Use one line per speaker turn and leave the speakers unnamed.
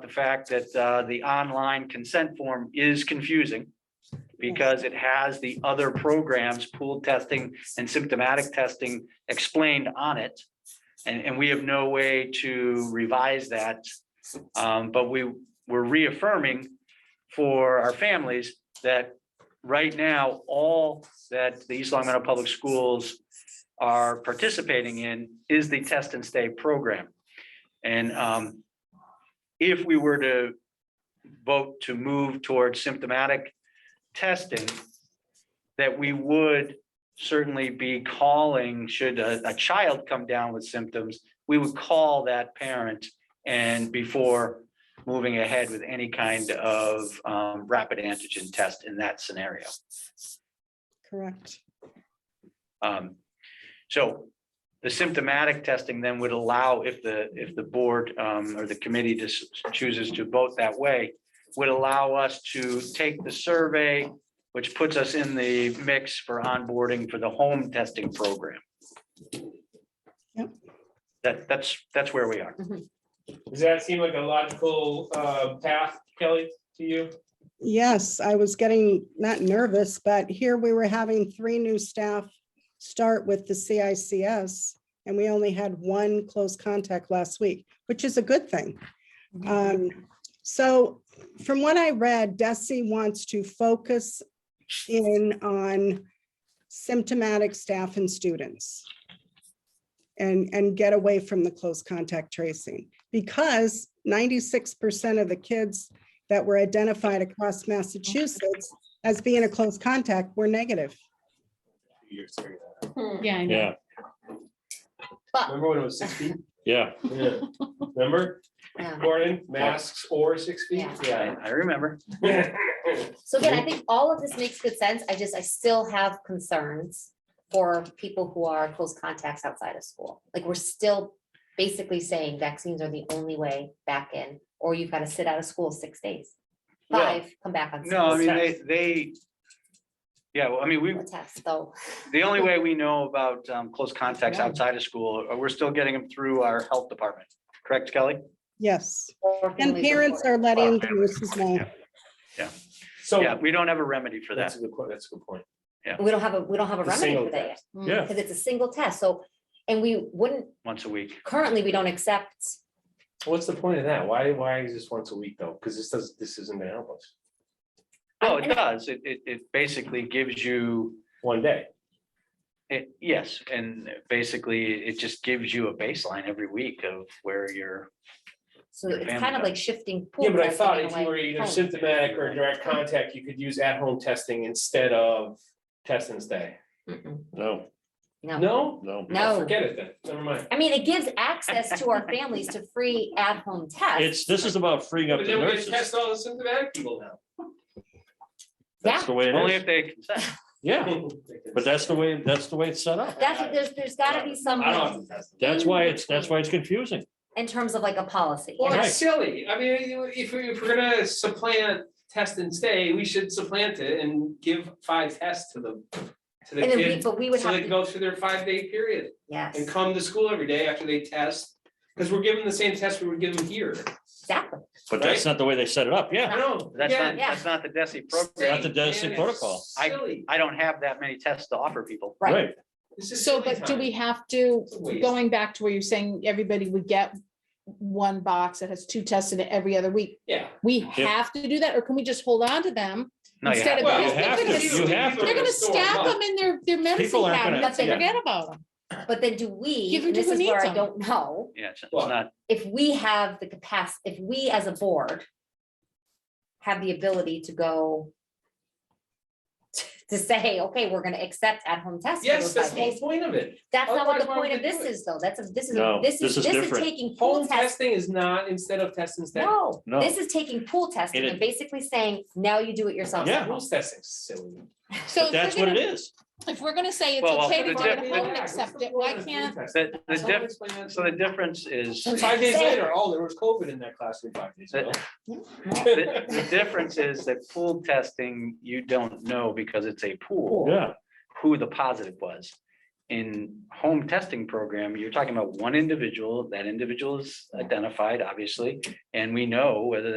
the fact that uh, the online consent form is confusing because it has the other programs, pool testing and symptomatic testing explained on it. And, and we have no way to revise that. Um, But we, we're reaffirming for our families that right now, all that the East Long Meadow Public Schools are participating in is the test and stay program. And um, if we were to vote to move towards symptomatic testing, that we would certainly be calling, should a, a child come down with symptoms, we would call that parent and before moving ahead with any kind of um, rapid antigen test in that scenario.
Correct.
Um, So the symptomatic testing then would allow, if the, if the board um, or the committee just chooses to vote that way, would allow us to take the survey, which puts us in the mix for onboarding for the home testing program.
Yep.
That, that's, that's where we are.
Does that seem like a logical uh, path, Kelly, to you?
Yes, I was getting not nervous, but here we were having three new staff start with the CICS. And we only had one close contact last week, which is a good thing. Um, so from what I read, Desi wants to focus in on symptomatic staff and students. And, and get away from the close contact tracing because ninety-six percent of the kids that were identified across Massachusetts as being a close contact were negative. Hmm.
Yeah, I know.
Yeah,
Remember when it was six feet?
yeah.
Yeah. Remember,
Yeah.
Gordon, masks or six feet?
I I remember.
Yeah.
So again, I think all of this makes good sense. I just, I still have concerns for people who are close contacts outside of school. Like, we're still basically saying vaccines are the only way back in, or you've got to sit out of school six days.
Well,
Five, come back on.
No, I mean,
Saturday.
they, they, yeah, well, I mean, we,
A Test, though.
the only way we know about um, close contacts outside of school, uh, we're still getting them through our health department. Correct, Kelly?
Yes,
or
and
families
parents
report.
are letting the nurses know.
So.
Yeah, we don't have a remedy for that.
That's a good, que- that's a good point.
We don't have a, we don't have a
The
remedy
single
for that yet,
test.
Mm.
Yeah.
because it's a single test, so, and we wouldn't,
once a week.
currently, we don't accept
What's the point of that? Why, why is this once a week though? Because this does, this isn't gonna help us.
Oh, it does. It, it, it basically gives you,
One day.
it, yes, and basically it just gives you a baseline every week of where you're.
So
Your
it's
family
kind of
does.
like shifting. pool
Yeah, but I
testing
thought
in a
if you
way.
were either
home.
symptomatic or direct contact, you could use at-home testing instead of test and stay.
Mm-mm,
No,
No,
No?
no.
Oh,
no.
Forget it then. Never mind.
I mean, it gives access to our families to free at-home tests.
It's, this is about freeing up
But
the
then we can
nurses.
test all the symptomatic people now.
That's the way it
Only
is.
if they consent.
Yeah, but that's the way, that's the way it's set up.
That's, there's, there's gotta be some,
I don't have to test. them.
That's why it's, that's why it's confusing.
in terms of like a policy.
Well,
And
it's silly. I mean, you- if we, if we're gonna supplant test and stay, we should supplant it and give five tests to the, to the
and then we,
kids.
but we would
So
have
they
to,
go through their five-day period and
yes,
come to school every day after they test. Because we're given the same test we were given here.
exactly.
But that's not the way they set it up, yeah.
I know.
That's
yeah,
not, that's not the DESI
silly,
program.
Not the
man,
Dennison
it's
protocol.
I-
Silly.
I don't have that many tests to offer people.
Right.
Right,
This is
Mm. So,
silly
but do
time.
we have to,
It's a waste.
going back to where you're saying everybody would get one box that has two tests in it every other week?
Yeah.
We have to do that, or can we just hold on to them?
No, you
Instead
have to.
of-
Well,
they're
you have
gonna-
to.
you have to.
They're gonna
Store 'em
stack
up.
them in their, their medicine
People aren't gonna-
cabinet, they
Yeah.
forget about them.
But then do we,
Give them
and
to
this
who
is
needs
where I
them.
don't know,
Yeah, it's it's
Well,
not,
if we have the capacity, if we as a board have the ability to go to say, okay, we're gonna accept at-home tests. for
Yes,
those
that's
five
the whole
days.
point of it.
That's not what the
Otherwise, why would
point of
they do
this
it?
is though. That's, a this is,
No,
this is,
this is
this is
different.
taking pool
Home
testing.
testing is not instead of test and stay.
No,
No.
this is taking pool testing
It
and
is-
basically saying, now you do it yourself.
Yeah.
Rules testing is silly.
So
but
if
that's
we're
what it
gonna,
is.
if we're gonna say it's
Well, well,
okay
for
to
the
take
diff-
it
the-
home and accept it, why can't?
the, the diff, so the difference is, the,
Five days later, oh, there was COVID in that classroom five days ago.
Hmm?
the difference is that pool testing, you don't know because it's a pool
Yeah,
who the positive was. in home testing program, you're talking about one individual, that individual is identified, obviously, and we know whether